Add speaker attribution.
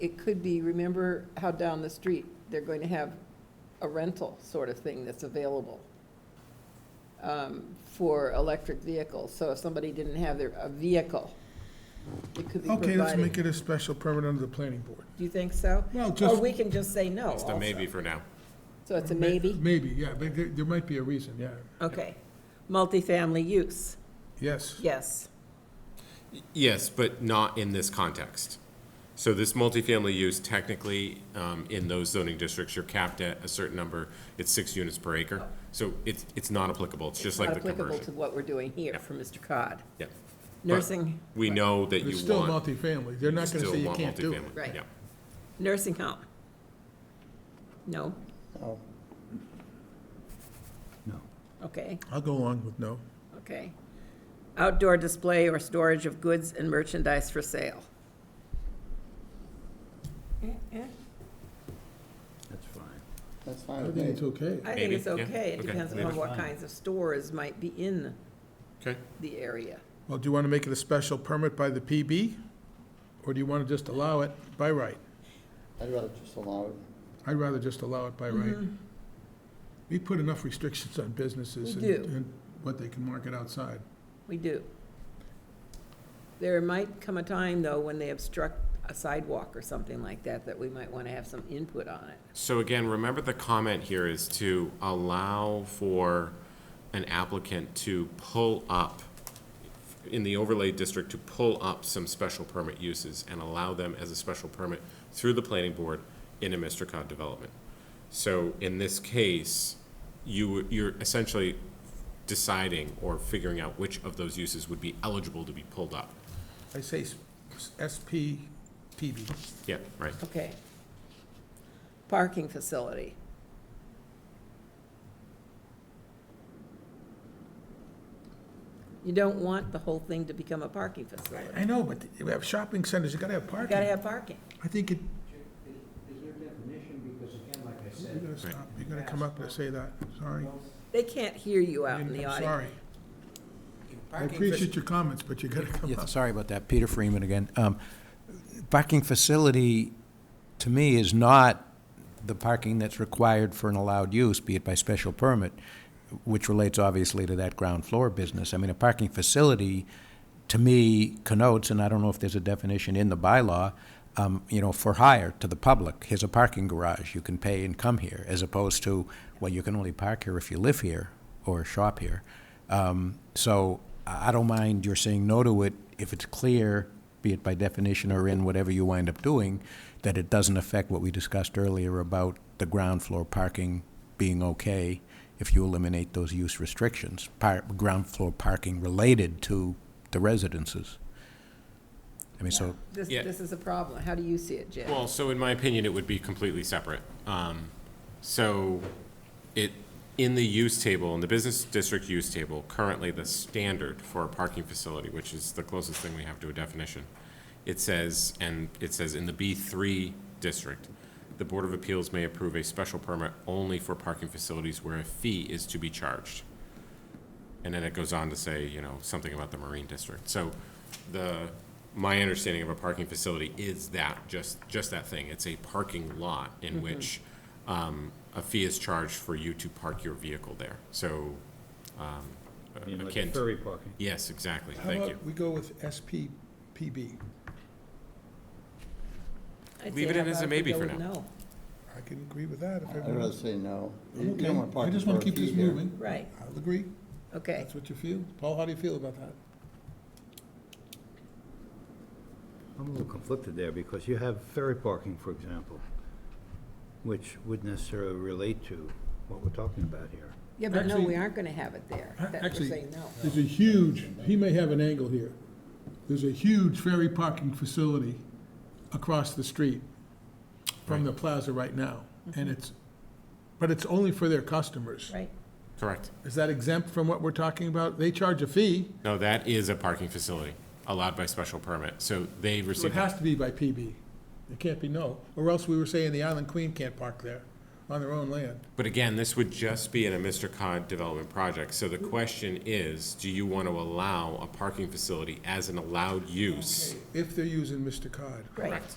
Speaker 1: it could be, remember how down the street, they're going to have a rental sort of thing that's available um, for electric vehicles. So if somebody didn't have their, a vehicle, it could be
Speaker 2: Okay, let's make
Speaker 1: provided.
Speaker 2: it a special permit under the planning board.
Speaker 1: Do you think so?
Speaker 2: Well,
Speaker 1: Or
Speaker 2: just.
Speaker 1: we can just say no
Speaker 3: It's the
Speaker 1: also.
Speaker 3: maybe for now.
Speaker 1: So it's a maybe?
Speaker 2: Maybe, yeah, but there, there might be a reason, yeah.
Speaker 1: Okay. Multifamily use,
Speaker 2: Yes,
Speaker 1: yes.
Speaker 3: Y- Yes, but not in this context. So this multifamily use technically, um, in those zoning districts, you're capped at a certain number. It's six units per acre. So it's, it's not applicable. It's just like
Speaker 1: Not
Speaker 3: the
Speaker 1: applicable to
Speaker 3: conversion.
Speaker 1: what we're doing here for Mr. Cod.
Speaker 3: Yeah.
Speaker 1: Nursing,
Speaker 3: We know that
Speaker 2: but it's
Speaker 3: you
Speaker 2: still
Speaker 3: want.
Speaker 2: multifamily. They're not gonna
Speaker 3: still
Speaker 2: say you
Speaker 3: want
Speaker 2: can't do it.
Speaker 3: multifamily.
Speaker 1: Right.
Speaker 3: Yeah.
Speaker 1: nursing home. No,
Speaker 4: No.
Speaker 1: okay.
Speaker 2: I'll go along with no.
Speaker 1: Okay. Outdoor display or storage of goods and merchandise for sale. Eh,
Speaker 4: That's fine.
Speaker 5: That's
Speaker 2: I
Speaker 5: fine with
Speaker 2: think it's
Speaker 5: me.
Speaker 2: okay.
Speaker 1: I think it's
Speaker 3: Maybe, yeah,
Speaker 1: okay. It
Speaker 3: okay,
Speaker 1: depends
Speaker 3: leave
Speaker 1: upon
Speaker 3: it.
Speaker 1: what kinds of stores might be in
Speaker 3: Okay.
Speaker 1: the area.
Speaker 2: Well, do you wanna make it a special permit by the PB? Or do you wanna just allow it by right?
Speaker 5: I'd rather just allow it.
Speaker 2: I'd rather just allow it by right.
Speaker 1: Mm-hmm.
Speaker 2: We put enough restrictions on businesses
Speaker 1: We
Speaker 2: and,
Speaker 1: do.
Speaker 2: and what they can market outside.
Speaker 1: We do. There might come a time, though, when they obstruct a sidewalk or something like that, that we might want to have some input on it.
Speaker 3: So again, remember the comment here is to allow for an applicant to pull up, in the overlay district, to pull up some special permit uses and allow them as a special permit through the planning board in a Mr. Cod development. So in this case, you, you're essentially deciding or figuring out which of those uses would be eligible to be pulled up.
Speaker 2: I say s- SP, PB.
Speaker 3: Yeah, right.
Speaker 1: Okay. Parking facility. You don't want the whole thing to become a parking facility.
Speaker 2: I know, but you have shopping centers, you gotta have
Speaker 1: You
Speaker 2: parking.
Speaker 1: gotta have parking.
Speaker 2: I think it,
Speaker 6: Is there definition, because again, like I
Speaker 2: you're
Speaker 6: said,
Speaker 2: gonna stop, you're gonna come up and say that, sorry.
Speaker 1: They can't hear you out in the
Speaker 2: I'm
Speaker 1: audience.
Speaker 2: Sorry. I appreciate your comments, but you gotta come
Speaker 4: Yeah,
Speaker 2: up.
Speaker 4: sorry about that. Peter Freeman again. Um, Parking facility, to me, is not the parking that's required for an allowed use, be it by special permit, which relates obviously to that ground floor business. I mean, a parking facility, to me, connotes, and I don't know if there's a definition in the bylaw, um, you know, for hire to the public. Here's a parking garage. You can pay and come here, as opposed to, well, you can only park here if you live here or shop here. Um, So I I don't mind your saying no to it if it's clear, be it by definition or in whatever you wind up doing, that it doesn't affect what we discussed earlier about the ground floor parking being okay if you eliminate those use restrictions, par- ground floor parking related to the residences. I mean, so,
Speaker 1: This,
Speaker 3: Yeah.
Speaker 1: this is a problem. How do you see it, Jay?
Speaker 3: Well, so in my opinion, it would be completely separate. Um, So it, in the use table, in the business district use table, currently the standard for a parking facility, which is the closest thing we have to a definition, it says, and it says in the B3 district, the Board of Appeals may approve a special permit only for parking facilities where a fee is to be charged. And then it goes on to say, you know, something about the Marine District. So the, my understanding of a parking facility is that, just, just that thing. It's a parking lot
Speaker 2: Mm-hmm.
Speaker 3: in which um, a fee is charged for you to park your vehicle there. So, um, akin, to-
Speaker 4: parking.
Speaker 3: yes, exactly,
Speaker 2: How
Speaker 3: thank you.
Speaker 2: about we go with SPPB?
Speaker 1: I'd
Speaker 3: leave
Speaker 1: say
Speaker 3: it
Speaker 1: how
Speaker 3: in as
Speaker 1: about
Speaker 3: a
Speaker 1: if we
Speaker 3: maybe
Speaker 1: go
Speaker 3: for
Speaker 1: with
Speaker 3: now.
Speaker 1: no?
Speaker 2: I can agree with that if
Speaker 5: I'd
Speaker 2: everyone
Speaker 5: rather
Speaker 2: else.
Speaker 5: say no. You don't
Speaker 2: Okay,
Speaker 5: want
Speaker 2: I
Speaker 5: parking
Speaker 2: just want
Speaker 5: for
Speaker 2: to
Speaker 5: a
Speaker 2: keep this
Speaker 5: fee here.
Speaker 2: moving.
Speaker 1: Right,
Speaker 2: I'll agree.
Speaker 1: okay.
Speaker 2: That's what you feel. Paul, how do you feel about that?
Speaker 4: I'm a little conflicted there, because you have ferry parking, for example, which would necessarily relate to what we're talking about here.
Speaker 1: Yeah, but no,
Speaker 2: Actually-
Speaker 1: we aren't gonna have it there. That we're
Speaker 2: Actually-
Speaker 1: saying no.
Speaker 2: There's a huge, he may have an angle here. There's a huge ferry parking facility across the street from the plaza right now. And
Speaker 1: Mm-hmm.
Speaker 2: it's, but it's only for their customers.
Speaker 1: Right,
Speaker 3: Correct.
Speaker 2: Is that exempt from what we're talking about? They charge a fee,
Speaker 3: No, that is a parking facility allowed by special permit. So they
Speaker 2: so it
Speaker 3: receive,
Speaker 2: has to be by PB. It can't be no, or else we were saying the Island Queen can't park there on their own land.
Speaker 3: but again, this would just be in a Mr. Cod development project. So the question is, do you want to allow a parking facility as an allowed use?
Speaker 2: If they're using Mr. Cod.
Speaker 1: right.
Speaker 3: Correct.